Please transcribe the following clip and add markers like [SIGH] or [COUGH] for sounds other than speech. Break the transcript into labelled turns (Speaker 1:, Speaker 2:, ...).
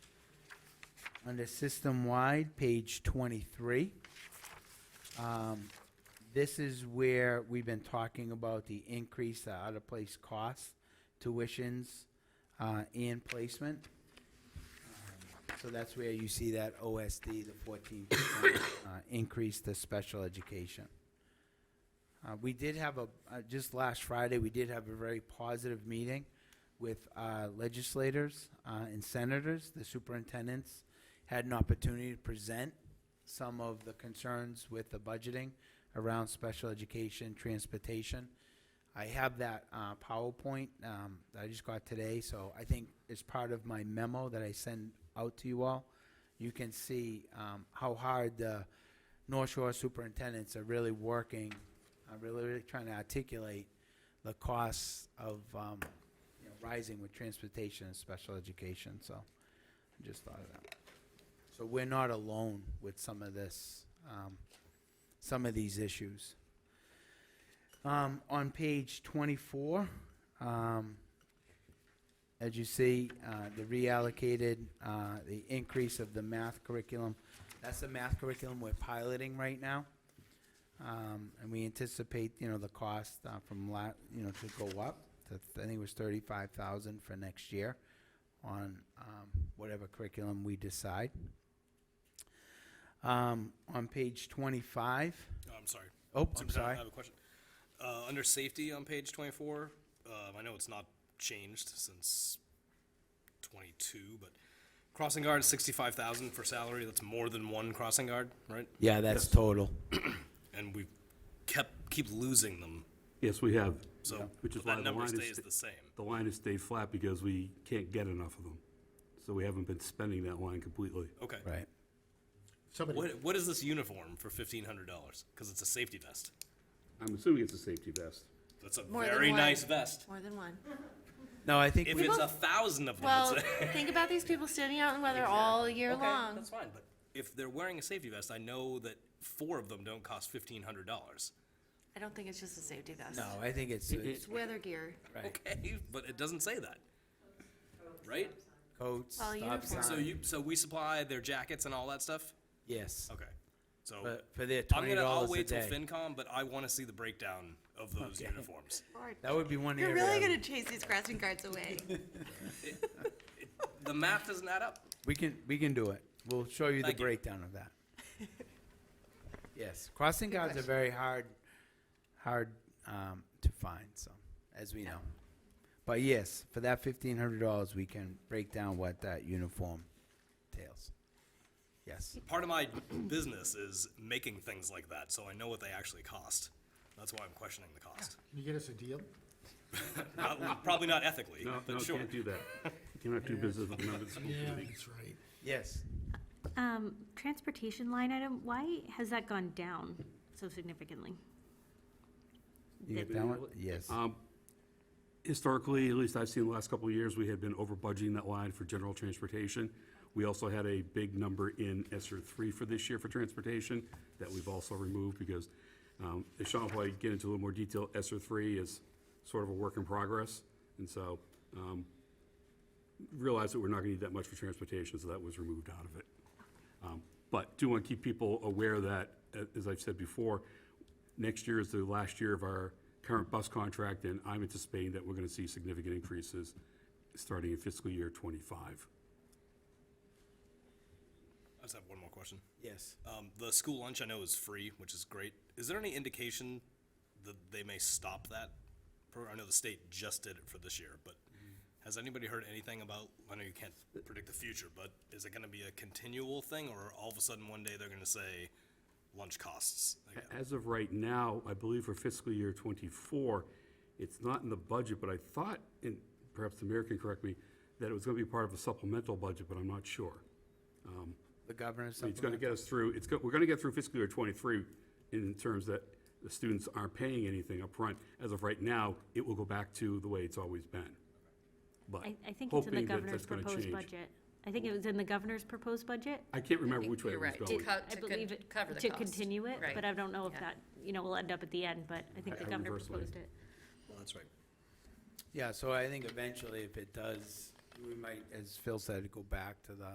Speaker 1: under system-wide, page 23. Um, This is where we've been talking about the increase, the out-of-place costs, tuitions, uh, and placement. Um, So that's where you see that OSD, the 14% uh, increase to special education. Uh, We did have a, uh, just last Friday, we did have a very positive meeting with uh, legislators uh, and senators. The superintendents had an opportunity to present some of the concerns with the budgeting around special education, transportation. I have that uh, PowerPoint um, that I just got today, so I think as part of my memo that I send out to you all, you can see um, how hard the North Shore superintendents are really working, are really, really trying to articulate the costs of um, you know, rising with transportation and special education, so I just thought of that. So we're not alone with some of this, um, some of these issues. Um, on page twenty-four, um, as you see, uh, the reallocated, uh, the increase of the math curriculum. That's the math curriculum we're piloting right now. Um, and we anticipate, you know, the cost, uh, from la, you know, to go up to, I think it was thirty-five thousand for next year on, um, whatever curriculum we decide. Um, on page twenty-five,
Speaker 2: Oh, I'm sorry.
Speaker 1: oh, I'm
Speaker 2: Superintendent,
Speaker 1: sorry.
Speaker 2: I have a question. Uh, under safety on page twenty-four, um, I know it's not changed since twenty-two, but crossing guard is sixty-five thousand for salary. That's more than one crossing guard, right?
Speaker 1: Yeah, that's total.
Speaker 2: [CLEARS THROAT] And we kept, keep losing them,
Speaker 3: Yes, we have.
Speaker 2: so
Speaker 3: Which is
Speaker 2: but that
Speaker 3: why the
Speaker 2: number
Speaker 3: line is
Speaker 2: stays
Speaker 3: sta-
Speaker 2: the same.
Speaker 3: The line has stayed flat because we can't get enough of them. So we haven't been spending that line completely.
Speaker 2: Okay.
Speaker 1: Right.
Speaker 4: Somebody,
Speaker 2: What, what is this uniform for fifteen hundred dollars? Because it's a safety vest.
Speaker 3: I'm assuming it's a safety vest.
Speaker 2: That's a
Speaker 5: More than
Speaker 2: very
Speaker 5: one.
Speaker 2: nice vest.
Speaker 5: More
Speaker 1: [LAUGHS]
Speaker 5: than one.
Speaker 1: No, I think
Speaker 2: If
Speaker 1: we,
Speaker 2: it's a thousand of them,
Speaker 5: Well,
Speaker 2: it's a-
Speaker 5: think about these people standing out in the weather all year
Speaker 2: Okay,
Speaker 5: long.
Speaker 2: That's fine, but if they're wearing a safety vest, I know that four of them don't cost fifteen hundred dollars.
Speaker 5: I don't think it's just a safety vest.
Speaker 1: no, I think it's, it's
Speaker 5: It's weather gear.
Speaker 2: Okay, but it doesn't say that, right?
Speaker 1: coats,
Speaker 6: Oh,
Speaker 1: stop
Speaker 5: Well, uniform.
Speaker 2: So
Speaker 1: sign.
Speaker 2: you, so we supply their jackets and all that stuff.
Speaker 1: Yes,
Speaker 2: Okay, so
Speaker 1: for, for their
Speaker 2: I'm
Speaker 1: twenty
Speaker 2: gonna, I'll
Speaker 1: dollars a
Speaker 2: wait till
Speaker 1: day.
Speaker 2: FinCom, but I want to see the breakdown of those uniforms.
Speaker 1: That would be one
Speaker 6: You're
Speaker 1: area.
Speaker 6: really
Speaker 1: I
Speaker 6: gonna
Speaker 1: would-
Speaker 6: chase these crossing guards away.
Speaker 2: The math doesn't add up.
Speaker 1: We can, we can do it. We'll show you the
Speaker 2: Thank you.
Speaker 1: breakdown of
Speaker 2: [LAUGHS]
Speaker 1: that. Yes, crossing guards are very hard, hard, um, to find, so, as we know. But yes, for that fifteen hundred dollars, we can break down what that uniform entails. Yes,
Speaker 2: Part of my business is making things like that, so I know what they actually cost. That's why I'm questioning the cost.
Speaker 4: Can you get us a deal?
Speaker 2: Not- probably not ethically, [LAUGHS]
Speaker 3: No, no,
Speaker 2: but sure.
Speaker 3: can't do that.
Speaker 2: [LAUGHS]
Speaker 3: Cannot do business with a member of the school committee.
Speaker 4: That's right.
Speaker 1: yes.
Speaker 7: Um, transportation line item, why has that gone down so significantly?
Speaker 1: You get that one? Yes.
Speaker 3: Um, Historically, at least I've seen the last couple of years, we had been over budgeting that line for general transportation. We also had a big number in ESER three for this year for transportation that we've also removed because, um, as Sean will probably get into a little more detail, ESER three is sort of a work in progress. And so, um, realized that we're not gonna need that much for transportation, so that was removed out of it. Um, But do want to keep people aware that, uh, as I've said before, next year is the last year of our current bus contract, and I'm anticipating that we're going to see significant increases starting in fiscal year '25.
Speaker 2: I just have one more question.
Speaker 1: Yes.
Speaker 2: Um, the school lunch I know is free, which is great. Is there any indication that they may stop that? pro- I know the state just did it for this year, but has anybody heard anything about, I know you can't predict the future, but is it gonna be a continual thing or all of a sudden one day they're gonna say lunch costs? again?
Speaker 3: As of right now, I believe for fiscal year '24, it's not in the budget, but I thought, and perhaps the mayor can correct me, that it was going to be part of a supplemental budget, but I'm not sure.
Speaker 1: The governor's
Speaker 3: It's going to
Speaker 1: supplement.
Speaker 3: get us through, it's, go- we're going to get through fiscal year '23 in terms that the students aren't paying anything up front. As of right now, it will go back to the way it's always been. But
Speaker 7: I, I think it's in the
Speaker 3: hoping that
Speaker 7: governor's
Speaker 3: that's going to
Speaker 7: proposed
Speaker 3: change.
Speaker 7: budget. I think it was in the governor's proposed budget.
Speaker 3: I can't remember which way it
Speaker 6: You're
Speaker 3: was
Speaker 6: right,
Speaker 3: going.
Speaker 6: Co-
Speaker 7: I
Speaker 6: to
Speaker 7: believe
Speaker 6: con-
Speaker 7: it,
Speaker 6: cover the
Speaker 7: to
Speaker 6: cost.
Speaker 7: continue it,
Speaker 6: Right.
Speaker 7: but I don't know if
Speaker 6: Yeah.
Speaker 7: that, you know, will end up at the end, but I think the
Speaker 3: I
Speaker 7: governor
Speaker 3: reversely-
Speaker 7: proposed it.
Speaker 2: Well, That's right.
Speaker 1: Yeah, so I think eventually if it does, we might, as Phil said, go back to the